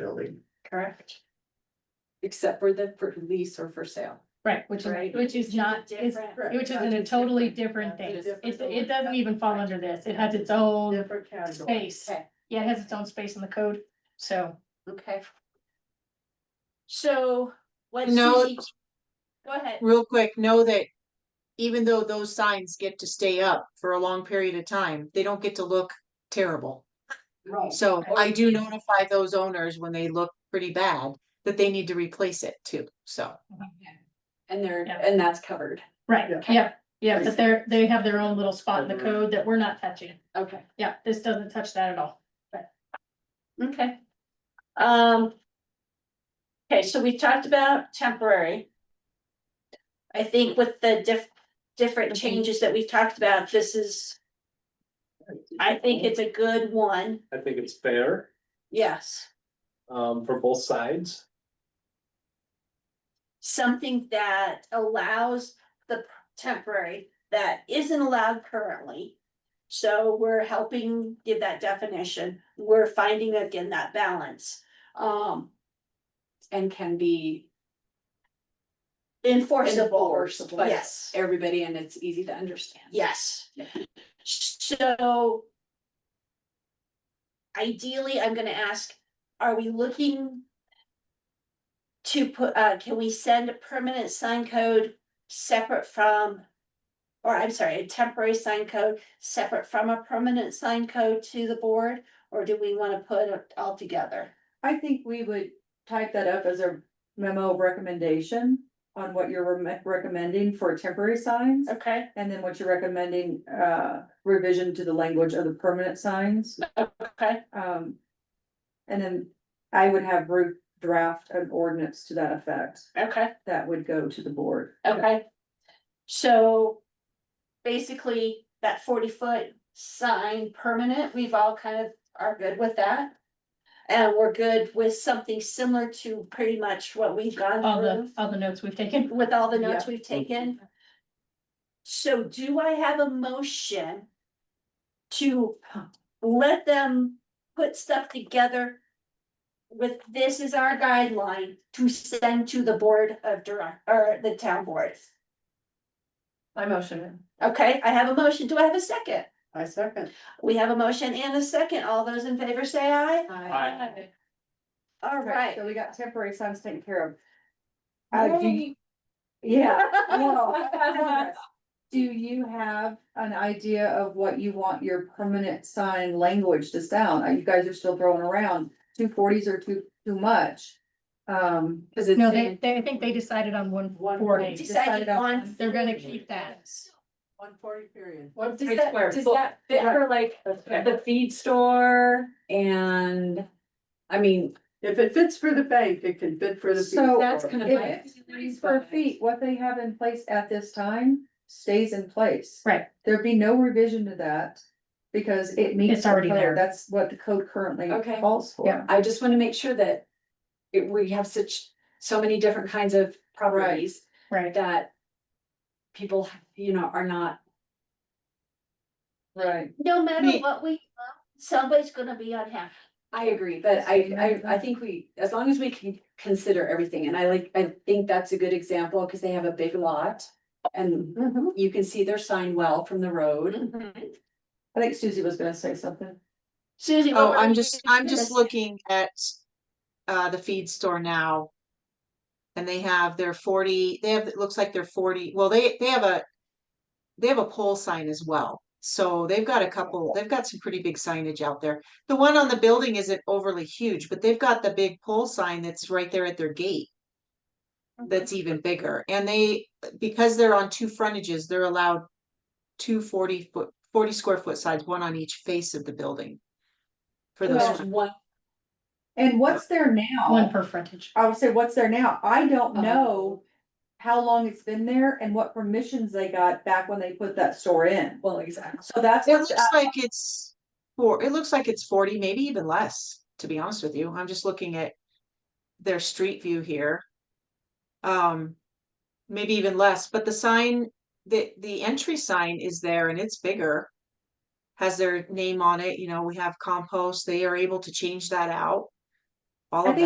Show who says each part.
Speaker 1: building.
Speaker 2: correct? Except for the for lease or for sale.
Speaker 3: Right, which is,
Speaker 2: Right.
Speaker 3: which is not, is,
Speaker 2: Different.
Speaker 3: which is in a totally different thing.
Speaker 2: Different.
Speaker 3: It, it doesn't even fall under this. It has its own
Speaker 2: Different category.
Speaker 3: space. Yeah, it has its own space in the code, so.
Speaker 2: Okay. So what
Speaker 4: No.
Speaker 2: she, go ahead.
Speaker 4: real quick, know that even though those signs get to stay up for a long period of time, they don't get to look terrible.
Speaker 2: Right.
Speaker 4: So
Speaker 3: Okay.
Speaker 4: I do notify those owners when they look pretty bad that they need to replace it too, so.
Speaker 2: And they're,
Speaker 3: Yeah.
Speaker 2: and that's covered.
Speaker 3: Right,
Speaker 2: Yeah.
Speaker 3: yeah, yeah, but they're, they have their own little spot in the code that we're not touching.
Speaker 2: Okay.
Speaker 3: Yeah, this doesn't touch that at all.
Speaker 2: Okay.
Speaker 5: Um. Okay, so we talked about temporary. I think with the diff, different
Speaker 3: Mhm.
Speaker 5: changes that we've talked about, this is, I think it's a good one,
Speaker 6: I think it's fair,
Speaker 5: yes.
Speaker 6: um, for both sides.
Speaker 5: Something that allows the temporary that isn't allowed currently. So we're helping give that definition, we're finding again that balance, um,
Speaker 2: And can be
Speaker 5: enforceable,
Speaker 2: enforced by
Speaker 5: yes.
Speaker 2: everybody and it's easy to understand.
Speaker 5: Yes. So. Ideally, I'm gonna ask, are we looking? To put, uh, can we send a permanent sign code separate from? Or I'm sorry, a temporary sign code separate from a permanent sign code to the board, or do we wanna put it all together?
Speaker 7: I think we would type that up as a memo of recommendation on what you're re- recommending for temporary signs.
Speaker 5: Okay.
Speaker 7: And then what you're recommending, uh, revision to the language of the permanent signs,
Speaker 5: Okay,
Speaker 7: um. And then I would have Ruth draft an ordinance to that effect,
Speaker 5: okay.
Speaker 7: that would go to the board.
Speaker 5: Okay. So basically, that forty foot sign permanent, we've all kind of are good with that. And we're good with something similar to pretty much what we've
Speaker 3: All
Speaker 5: gone
Speaker 3: the, all the notes we've taken.
Speaker 5: through with all the notes we've taken. So do I have a motion to let them put stuff together with this is our guideline to send to the board of direct, or the town boards?
Speaker 2: I motion it.
Speaker 5: Okay, I have a motion. Do I have a second?
Speaker 2: I second.
Speaker 5: We have a motion and a second. All those in favor say aye.
Speaker 6: Aye.
Speaker 5: All right.
Speaker 7: So we got temporary signs taken care of. Uh, do you-
Speaker 2: Yay.
Speaker 7: Yeah. Well, Do you have an idea of what you want your permanent sign language to sound? Uh, You guys are still throwing around, two forties are too, too much. Um,
Speaker 2: Cause it's.
Speaker 3: No, they, they, I think they decided on one
Speaker 2: One
Speaker 3: forty.
Speaker 2: forty.
Speaker 5: Decided
Speaker 7: Decided on-
Speaker 5: on.
Speaker 3: They're gonna keep that.
Speaker 2: One forty period.
Speaker 8: What
Speaker 2: Three
Speaker 8: does that,
Speaker 2: square
Speaker 8: does
Speaker 2: foot.
Speaker 8: that fit for like the feed store?
Speaker 2: And, I mean. If it fits for the bank, it can fit for
Speaker 7: the
Speaker 2: So
Speaker 7: people.
Speaker 2: that's kind of
Speaker 7: if
Speaker 2: my.
Speaker 7: it's three square feet, what they have in place at this time stays in place.
Speaker 3: Right.
Speaker 7: There'd be no revision to that because it meets.
Speaker 3: It's already
Speaker 7: the code.
Speaker 3: there.
Speaker 7: That's what the code currently
Speaker 2: Okay.
Speaker 7: calls for.
Speaker 3: Yeah.
Speaker 2: I just wanna make sure that it, we have such, so many different kinds of properties
Speaker 3: Right.
Speaker 2: that people, you know, are not,
Speaker 7: Right.
Speaker 5: No matter
Speaker 4: Me-
Speaker 5: what we, somebody's gonna be unhappy.
Speaker 2: I agree, but I, I, I think we, as long as we can consider everything, and I like, I think that's a good example, cause they have a big lot. And you can see their sign well from the road.
Speaker 7: I think Susie was gonna say something.
Speaker 5: Susie. what
Speaker 4: Oh,
Speaker 5: were
Speaker 4: I'm
Speaker 5: you
Speaker 4: just,
Speaker 5: gonna
Speaker 4: I'm just
Speaker 5: say?
Speaker 4: looking at uh, the feed store now. And they have their forty, they have, it looks like they're forty, well, they, they have a, they have a pole sign as well. So they've got a couple, they've got some pretty big signage out there. The one on the building isn't overly huge, but they've got the big pole sign that's right there at their gate. That's even bigger. And they, because they're on two frontages, they're allowed two forty foot, forty square foot sides, one on each face of the building. For those.
Speaker 2: There's one
Speaker 7: And what's there now?
Speaker 3: Uh, One per frontage.
Speaker 7: I would say what's there now. I don't
Speaker 2: Uh-huh.
Speaker 7: know how long it's been there and what permissions they got back when they put that store in.
Speaker 2: Well, exactly.
Speaker 7: So that's
Speaker 4: It
Speaker 7: what's,
Speaker 4: looks like it's four, it looks like it's forty, maybe even less, to be honest with you. I'm just looking at their street view here. Um, maybe even less, but the sign, the, the entry sign is there and it's bigger. Has their name on it, you know, we have compost, they are able to change that out. all
Speaker 2: I
Speaker 4: of
Speaker 2: think
Speaker 4: that.